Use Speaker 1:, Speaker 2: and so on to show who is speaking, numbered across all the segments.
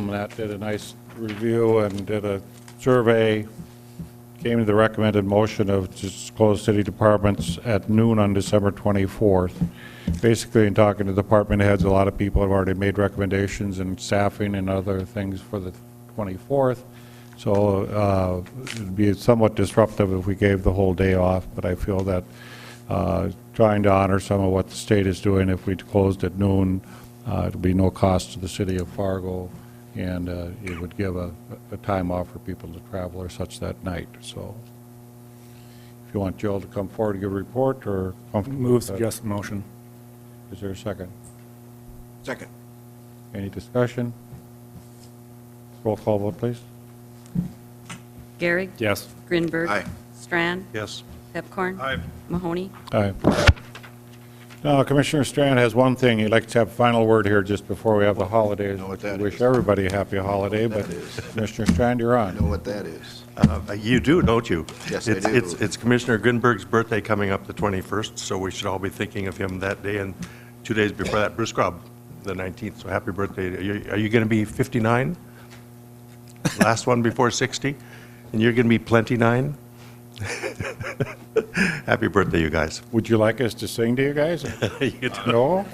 Speaker 1: Tom Lett did a nice review and did a survey, came to the recommended motion of disclose city departments at noon on December 24th. Basically, in talking to department heads, a lot of people have already made recommendations and staffing and other things for the 24th. So uh, it'd be somewhat disruptive if we gave the whole day off, but I feel that uh, trying to honor some of what the state is doing, if we closed at noon, uh, it'd be no cost to the city of Fargo, and uh, it would give a, a time off for people to travel or such that night, so. If you want Jill to come forward and give a report, or comfortable
Speaker 2: Move
Speaker 1: with that?
Speaker 2: suggested motion.
Speaker 1: Is there a second?
Speaker 3: Second.
Speaker 1: Any discussion? Roll call vote, please.
Speaker 4: Gary.
Speaker 2: Yes.
Speaker 4: Grinberg.
Speaker 3: Aye.
Speaker 4: Strand.
Speaker 3: Yes.
Speaker 4: Pepcorn. Mahoney.
Speaker 1: Aye. Now, Commissioner Strand has one thing, he'd like to have final word here just before we have the holidays.
Speaker 3: Know what that
Speaker 1: Wish
Speaker 3: is.
Speaker 1: everybody a happy holiday,
Speaker 3: what
Speaker 1: but
Speaker 3: that is.
Speaker 1: Commissioner Strand, you're
Speaker 3: Know
Speaker 1: on.
Speaker 3: what that is?
Speaker 5: Uh, You do, don't you?
Speaker 3: Yes, I
Speaker 5: It's-
Speaker 3: do.
Speaker 5: It's it's Commissioner Grinberg's birthday coming up the 21st, so we should all be thinking of him that day, and two days before that, Bruce Grubb, the 19th, so happy birthday. Are you- Are you going to be 59? Last one before 60? And you're going to be plenty-nine? Happy birthday, you guys.
Speaker 1: Would you like us to sing to you guys?
Speaker 5: You don't-
Speaker 1: No?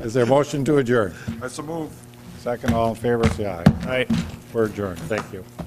Speaker 1: Is there a motion to adjourn?
Speaker 3: That's a move.
Speaker 1: Second, all in favor, say aye.
Speaker 2: Aye.
Speaker 1: We're adjourned, thank you.